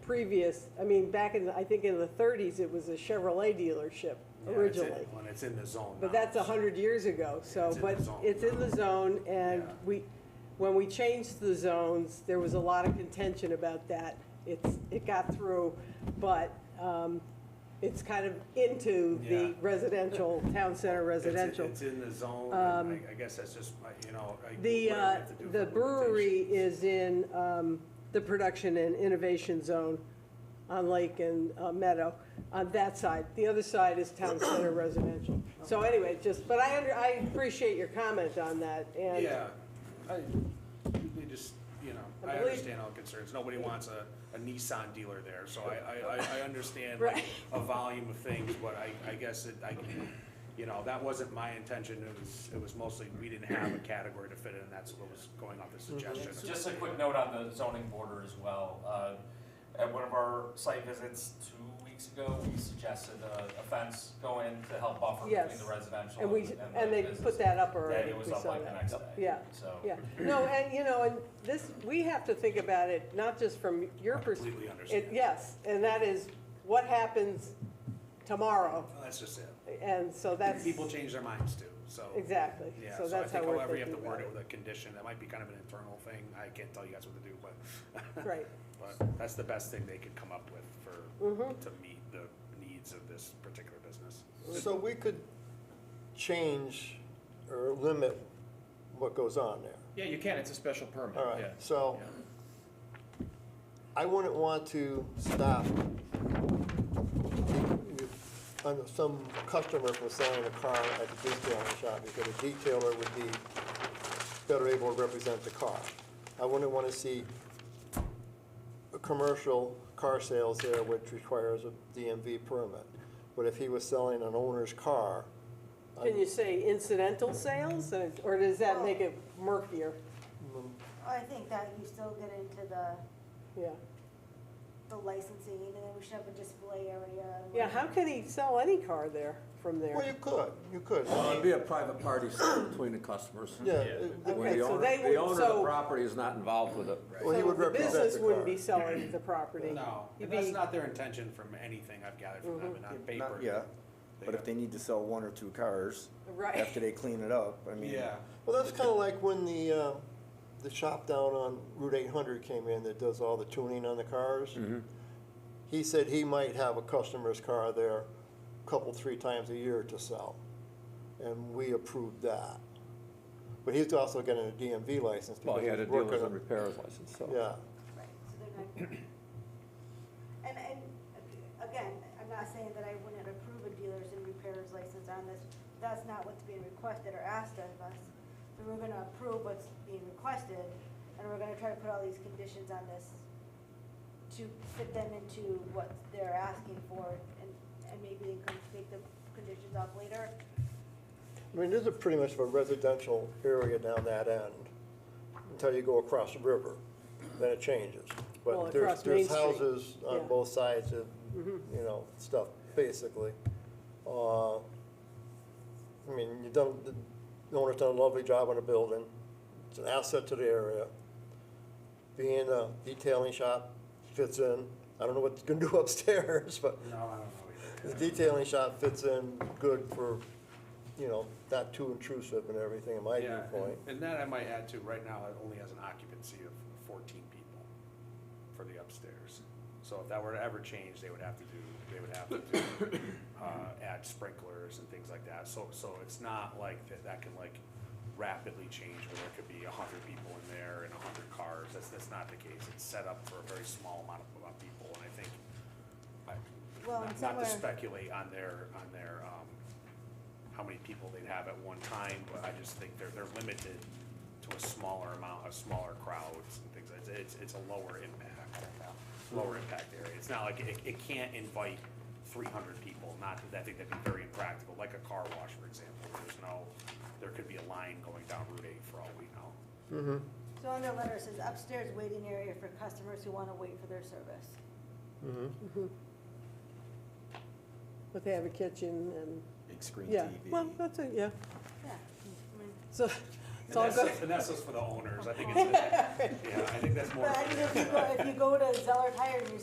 previous, I mean, back in, the- I think in the thirties, it was a Chevrolet dealership Yeah, it's in- originally. When it's in the zone. But now, that's a so- hundred years ago, so, It's in but the zone it's in now. the zone, and Yeah. we, when we changed the zones, there was a lot of contention about that. It's, it got through, but, um, it's kind of into Yeah. the residential, town center It's in- residential. Um, It's in the zone, and I, I guess that's just, my- you know, I. The, whatever I uh, have to do the for brewery limitations. is in um, the production and innovation zone on Lake and uh, Meadow, on that side. The other side is town center residential. So anyway, just, but I, under- I appreciate your comment on that, and. Yeah, I, we just, you know, I I believe- understand all concerns, nobody wants a, a Nissan dealer there, so I, I, I, I understand like Right. a volume of things, but I, I guess it, I, you know, that wasn't my intention, it was, it was mostly, we didn't have a category to fit in, that's what was going off the suggestion. Just a quick note on the zoning border as well. Uh, At one of our site visits two weeks ago, we suggested a a fence go in to help buffer between Yes. the residential And and we, the and they business. put that up That already. it was We up saw like the that. next day. Yeah. So. Yeah, no, and, you know, and this, we have to think about it, not just from your perspective. Completely understand. Yes, and that is what happens tomorrow, Well, That's just it, and so that's. people change their minds too, so. Exactly, Yeah, so so I that's how think we're however you have thinking to about word it. it with a condition, that might be kind of an internal thing, I can't tell you guys what to do, but. Right, But that's the best thing they could come up with Mm-hmm. for, to meet the needs of this particular business. So we could change or limit what goes on there. Yeah, you can, it's a special permit, All yeah. right, so I wouldn't want to stop on some customer from selling a car at the detailing shop because a detailer would be better able to represent the car. I wouldn't want to see a commercial car sales there, which requires a DMV permit. But if he was selling an owner's car, can you say incidental sales, or- or does that make it murkier? I think that you still get into the, Yeah, the licensing, and then we should have a display area. and yeah, like- how can he sell any car there, from Well, there? you could, you could. Well, it'd be a private party sale between the customers. Yeah, Where it- Okay, the so owner, they the would- owner of so- the property is not involved with it. well, he So would the represent the car. business wouldn't be selling the property. No, He'd that's be- Mm-hmm. not their intention from anything I've gathered from them, and on paper. Not yet, but if they need to sell one or two cars Right. after they clean it up, I mean. Yeah, Well, that's kind of like when the, uh, the shop down on Route eight hundred came in that does all the tuning on the cars. Mm-hmm. He said he might have a customer's car there a couple, three times a year to sell, and we approved that. But he's also getting a DMV license Well, because he had a he's dealer's working and on, repairer's license, so. yeah. Right, so they're not. And, and, again, I'm not saying that I wouldn't approve a dealers and repairers license on this, that's not what's being requested or asked of us. So we're gonna approve what's being requested, and we're gonna try to put all these conditions on this to fit them into what they're asking for, and, and maybe they can make the conditions up later. I mean, this is pretty much a residential area down that end, until you go across the river, then it changes. Well, But across Main there's, there's Street, houses yeah. Mm-hmm. on both sides of, you know, stuff, basically. Uh, I mean, you done, the owner's done a lovely job on the building, it's an asset to the area. Being a detailing shop fits in, I don't know what it's gonna do upstairs, but no, I don't know. the detailing shop fits in good for, you know, not too intrusive and everything, in my either. Yeah, viewpoint. and- and that I might add to, right now, it only has an occupancy of fourteen people for the upstairs. So if that were to ever change, they would have to do, they would have to do, uh, add sprinklers and things like that. So, so it's not like that, that can like rapidly change where there could be a hundred people in there and a hundred cars. That's, that's not the case. It's set up for a very small amount of, amount of people and I think, I, Well, not- and not to somewhere- speculate on their, on their, um, how many people they'd have at one time, but I just think they're, they're limited to a smaller amount, of smaller crowds and things. It's, it's, it's a lower impact, lower impact area. It's not like, it, it can't invite three hundred people, not that, I think that'd be very impractical, like a car wash, for example. There's no, there could be a line going down Route eight for all we know. So on their letter, it says upstairs waiting area for customers who wanna wait for their service. But they have a kitchen and, Big screen yeah, well, that's it, yeah, Yeah, I mean. so, And it's all that's, good. and that's just for the owners. I think it's, yeah, I think that's more. But I mean, if you go, if you go to Zeller Tire and you